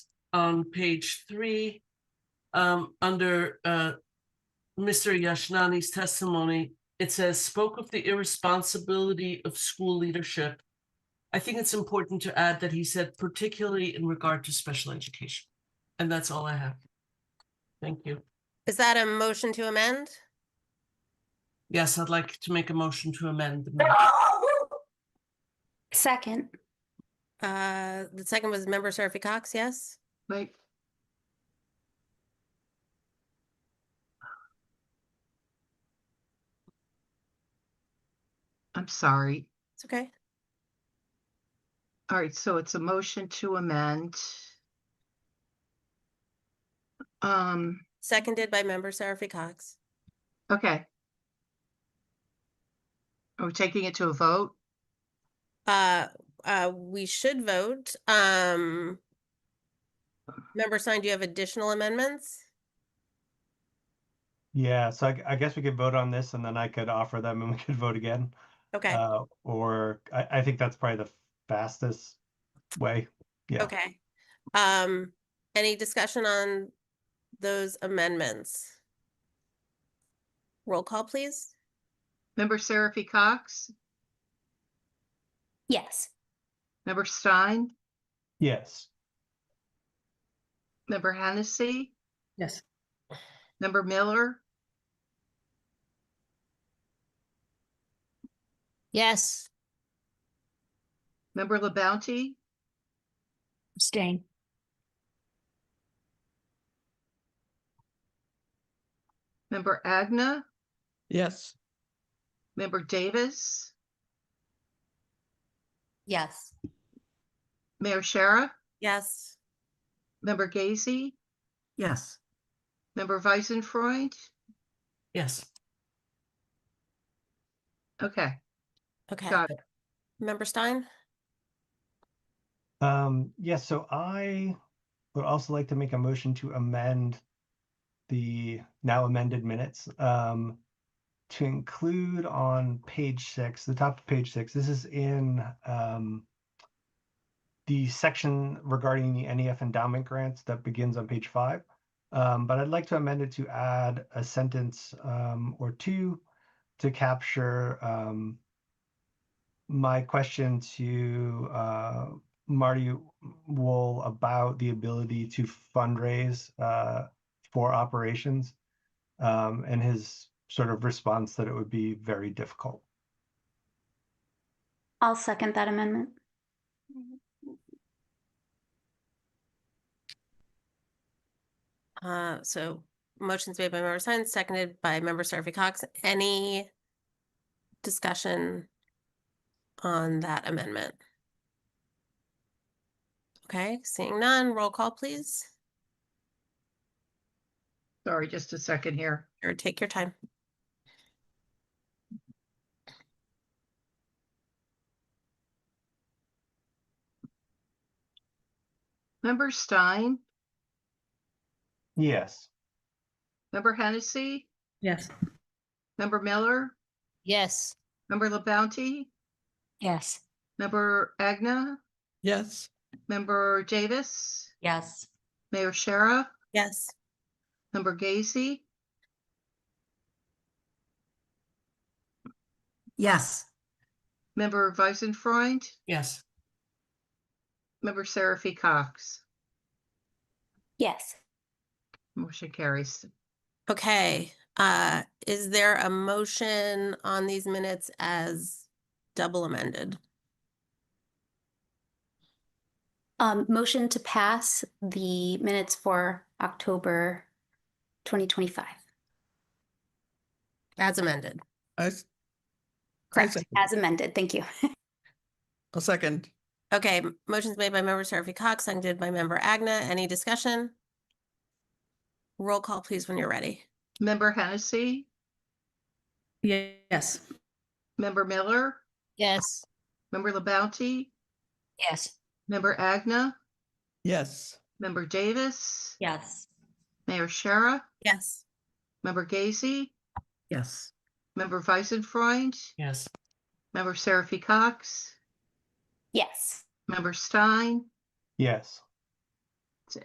on page three. Um, under, uh, Mr. Yashnani's testimony, it says spoke of the irresponsibility of school leadership. I think it's important to add that he said particularly in regard to special education. And that's all I have. Thank you. Is that a motion to amend? Yes, I'd like to make a motion to amend. the minute. Second, Uh, the second was member Seraphy Cox, yes? Wait, I'm sorry. It's okay. All right, so it's a motion to amend. Um, Seconded by member Seraphy Cox. okay. Are we taking it to a vote? Uh, uh, we should vote. Um, member Stein, do you have additional amendments? Yeah, so I, g- I guess we could vote on this and then I could offer them and we could vote again. Okay, Uh, or I, I think that's probably the fastest way. yeah. okay. Um, any discussion on those amendments? Roll call, please. Member Seraphy Cox, yes. member Stein, Yes. member Hennessy, Yes. member Miller, Yes, member LaBounty, Abstain. member Agna, Yes. member Davis, Yes. Mayor Shara, Yes. member Gazy, Yes. member Weisenfreud. Yes, Okay, Okay. got it. Member Stein? Um, yeah, so I would also like to make a motion to amend the now amended minutes um, to include on page six, the top of page six. This is in um, the section regarding the NEF endowment grants that begins on page five. Um, but I'd like to amend it to add a sentence um, or two to capture um, my question to uh, Marty Wool about the ability to fundraise uh, for operations um, and his sort of response that it would be very difficult. I'll second that amendment. Uh, so motions made by member Stein, seconded by member Seraphy Cox. Any discussion on that amendment? Okay, seeing none, roll call, please, Sorry, just a second here. or take your time. Member Stein, Yes. member Hennessy, Yes. member Miller, yes, member LaBounty, Yes. member Agna, Yes. member Davis, Yes. Mayor Shara, Yes. member Gacy, Yes. member Weisenfreund, yes. member Seraphy Cox. Yes. Motion carries. Okay, uh, is there a motion on these minutes as double amended? Um, motion to pass the minutes for October twenty twenty-five. As amended. I, s- Correct, second. as amended. Thank you. a second. Okay, m- motion's made by member Seraphy Cox, seconded by member Agna. Any discussion? Roll call, please, when you're ready. Member Hennessy, Yes. member Miller, yes, member LaBounty, Yes. member Agna, Yes. member Davis, Yes. Mayor Shara, Yes. member Gacy, Yes. member Weisenfreund, Yes, member Seraphy Cox, Yes. member Stein, Yes.